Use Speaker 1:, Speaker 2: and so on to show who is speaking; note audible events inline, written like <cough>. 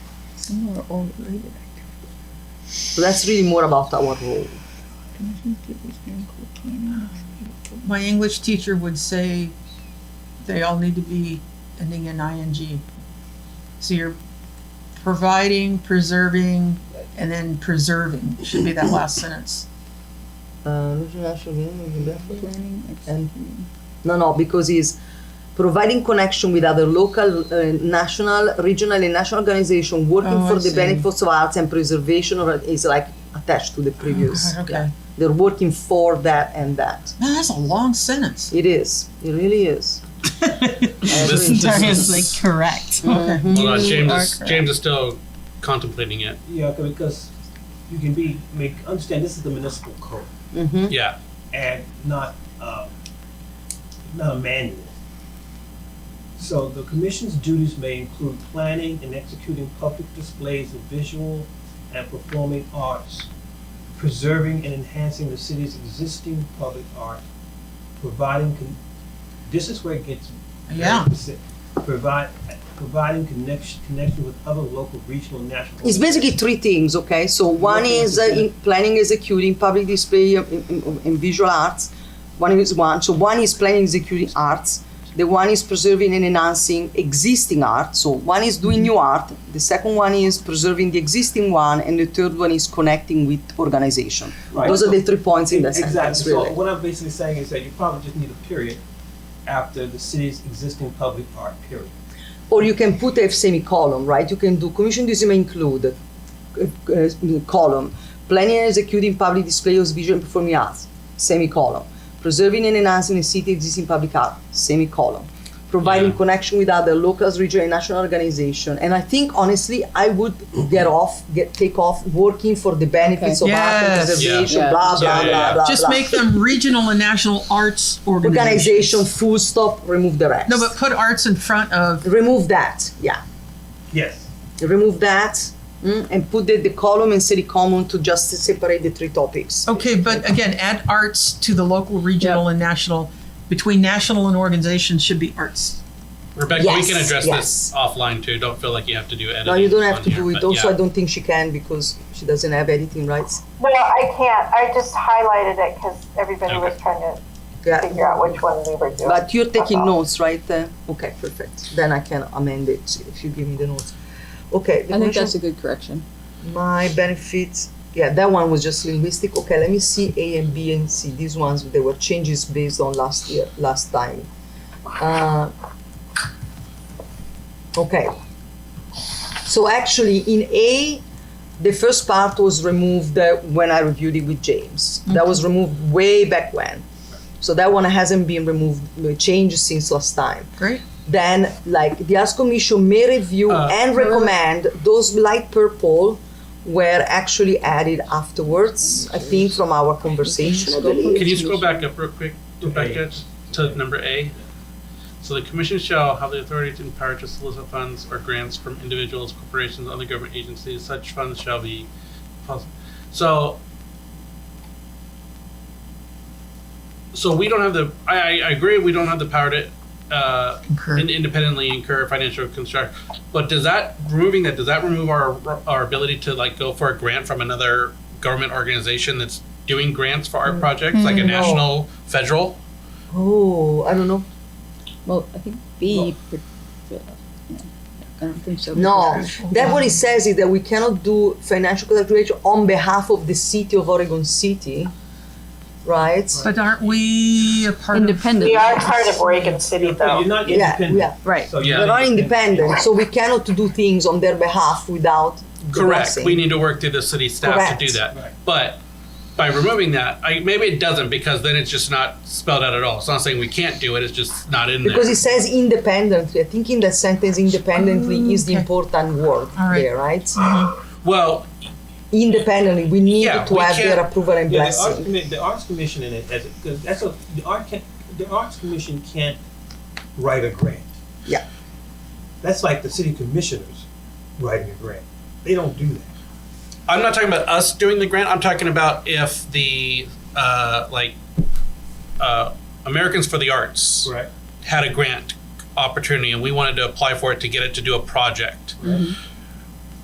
Speaker 1: similar or related
Speaker 2: So that's really more about our role.
Speaker 3: My English teacher would say they all need to be ending in ing. So you're providing, preserving, and then preserving should be that last sentence.
Speaker 2: Uh, international union in Bedford?
Speaker 1: planning
Speaker 2: And- No, no, because he's providing connection with other local, uh, national, regional, and national organization working
Speaker 3: Oh, I
Speaker 2: for the
Speaker 3: see.
Speaker 2: benefits of arts and preservation or is like attached to the previous.
Speaker 3: God, <laughs> okay.
Speaker 2: Yeah. They're working for that and that.
Speaker 3: Man, that's a long
Speaker 4: <laughs>
Speaker 3: sentence.
Speaker 2: It is. It really is. I agree.
Speaker 4: Listen to-
Speaker 5: like correct.
Speaker 3: Okay.
Speaker 4: <laughs> Hold on,
Speaker 5: You
Speaker 4: James
Speaker 5: are
Speaker 4: is,
Speaker 5: correct.
Speaker 4: James is still contemplating it.
Speaker 6: Yeah, because you can be make understand this is the municipal code
Speaker 3: Mm-hmm.
Speaker 2: Mhm.
Speaker 4: Yeah.
Speaker 6: and not um, not a manual. So the commission's duties may include planning and executing public displays of visual and performing arts, preserving and enhancing the city's existing public art, providing con- this is where it gets
Speaker 3: Yeah.
Speaker 6: specific. Provide providing connection connection with other local, regional, national.
Speaker 2: It's basically three things, okay? So one
Speaker 6: Working
Speaker 2: is uh,
Speaker 6: with the-
Speaker 2: in planning, executing, public display, um, in, in, in visual arts. One is one. So one is planning, executing arts. The one is preserving and enhancing existing art. So one is doing new art. The second one is preserving the existing one, and the third one is connecting with organization.
Speaker 6: Right.
Speaker 2: Those are the three points in that sentence,
Speaker 6: Exactly. So
Speaker 2: really.
Speaker 6: what I'm basically saying is that you probably just need a period after the city's existing public art period.
Speaker 2: Or you can put a semicolon, right? You can do commission duties may include uh, uh, column planning and executing public display of visual and performing arts, semicolon preserving and enhancing the city existing public art, semicolon providing
Speaker 4: Yeah.
Speaker 2: connection with other local, regional, and national organization. And I think honestly, I would get off, get take off working for the benefits of art and
Speaker 3: Yes.
Speaker 2: preservation,
Speaker 5: Yeah.
Speaker 2: blah blah
Speaker 4: Yeah, yeah,
Speaker 2: blah
Speaker 4: yeah.
Speaker 2: blah.
Speaker 3: Just
Speaker 2: blah.
Speaker 3: make them regional and national arts organizations.
Speaker 2: organization full stop. Remove the rest.
Speaker 3: No, but put arts in front of
Speaker 2: remove that. Yeah.
Speaker 6: Yes.
Speaker 2: remove that mm, and put the, the column and city common to just separate the three topics.
Speaker 3: Okay, but again, add arts to the local, regional, and national. Between national and organizations should be arts.
Speaker 4: Rebecca,
Speaker 2: Yes,
Speaker 4: we can address
Speaker 2: yes.
Speaker 4: this offline too. Don't feel like you have to do editing.
Speaker 2: No, you don't have
Speaker 4: on
Speaker 2: to
Speaker 4: here,
Speaker 2: do it.
Speaker 4: but
Speaker 2: Also,
Speaker 4: yeah.
Speaker 2: I don't think she can because she doesn't have editing rights.
Speaker 7: Well, I can't. I just highlighted it because everybody was trying to
Speaker 2: Yeah.
Speaker 7: figure out which one we were doing.
Speaker 2: But you're taking
Speaker 7: Uh-huh.
Speaker 2: notes, right? Uh, okay, perfect. Then I can amend it if you give me the notes. Okay, the
Speaker 5: I think
Speaker 2: commission-
Speaker 5: that's a good correction.
Speaker 2: my benefits. Yeah, that one was just linguistic. Okay, let me see A and B and C. These ones they were changes based on last year, last time. Uh, okay. So actually, in A, the first part was removed uh, when I reviewed it with James. That was removed way back when. So that one hasn't been removed, uh, changed since last time
Speaker 3: Great.
Speaker 2: then like the arts commission may review
Speaker 4: Uh,
Speaker 2: and recommend those light purple were actually added afterwards i think from our conversation i believe
Speaker 4: Can you scroll back up real quick, Rebecca, to number A? So the commission shall have the authority to empower to solicit funds or grants from individuals, corporations, other government agencies. Such funds shall be possible. So, so we don't have the. I, I I agree. We don't have the power to uh,
Speaker 3: Concur.
Speaker 4: in- independently incur financial construct. But does that removing that does that remove our our ability to like go for a grant from another government organization that's doing grants for
Speaker 2: Mm.
Speaker 4: art projects, like a national, federal?
Speaker 2: oh i don't know
Speaker 5: Well, I think B. per- I don't think so.
Speaker 2: no that what it says is that we cannot do financial calculation on behalf of the city of oregon city right
Speaker 3: But aren't we a part
Speaker 5: Independent.
Speaker 7: we are part of Oregon City,
Speaker 6: But
Speaker 7: though.
Speaker 6: you're not
Speaker 2: yeah
Speaker 6: independent.
Speaker 2: yeah
Speaker 5: Right.
Speaker 6: So
Speaker 4: Yeah.
Speaker 6: you're
Speaker 2: they're
Speaker 6: not
Speaker 2: not independent so we cannot do things on their behalf without the
Speaker 4: Correct.
Speaker 2: blessing.
Speaker 4: We need to work through the city staff to
Speaker 2: Correct.
Speaker 4: do that.
Speaker 6: Right.
Speaker 4: But by removing that, I, maybe it doesn't because then it's just not spelled out at all. It's not saying we can't do it. It's just not in there.
Speaker 2: Because it says independently. I think in that sentence, independently is the
Speaker 3: Mm, Okay.
Speaker 2: important word
Speaker 3: All right. Mm-hmm.
Speaker 2: there, right?
Speaker 4: well,
Speaker 2: Independently, we need
Speaker 4: Yeah,
Speaker 2: to
Speaker 4: we
Speaker 2: have their
Speaker 4: can't-
Speaker 2: approval and
Speaker 6: Yeah, the arts,
Speaker 2: blessing.
Speaker 6: commi- the arts commission in it, as because that's a the art can, the arts commission can't write a grant.
Speaker 2: Yeah.
Speaker 6: That's like the city commissioners writing a grant. They don't do that.
Speaker 4: I'm not talking about us doing the grant. I'm talking about if the uh, like uh, Americans for the Arts
Speaker 6: Right.
Speaker 4: had a grant opportunity and we wanted to apply for it to get it to do a project.